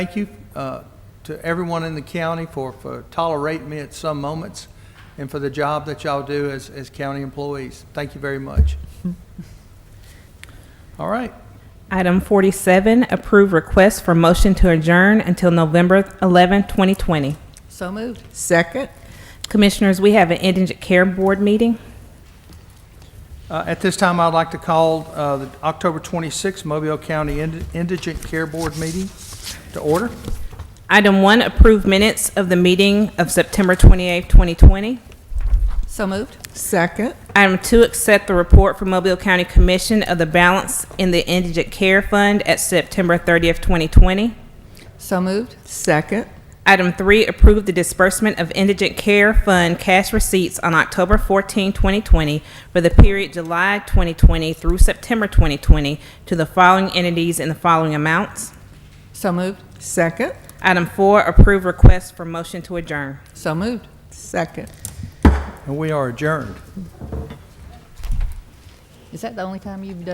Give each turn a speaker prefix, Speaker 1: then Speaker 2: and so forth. Speaker 1: Thank you uh, to everyone in the county for, for tolerating me at some moments and for the job that y'all do as, as county employees. Thank you very much. All right,
Speaker 2: Item 47, approve request for motion to adjourn until November 11, 2020.
Speaker 3: So moved.
Speaker 4: Second?
Speaker 2: Commissioners, we have an indigent care board meeting.
Speaker 1: Uh, at this time, I'd like to call uh, the October 26th Mobile County Indi- Indigent Care Board meeting to order.
Speaker 2: Item 1, approve minutes of the meeting of September 28, 2020.
Speaker 3: So moved.
Speaker 4: Second?
Speaker 2: Item 2, accept the report from Mobile County Commission of the balance in the indigent care fund at September 30th, 2020.
Speaker 3: So moved.
Speaker 4: Second?
Speaker 2: Item 3, approve the disbursement of indigent care fund cash receipts on October 14, 2020 for the period July 2020 through September 2020 to the following entities in the following amounts.
Speaker 3: So moved.
Speaker 4: Second?
Speaker 2: Item 4, approve request for motion to adjourn.
Speaker 3: So moved.
Speaker 4: Second.
Speaker 1: And we are adjourned.
Speaker 3: Is that the only time you've done?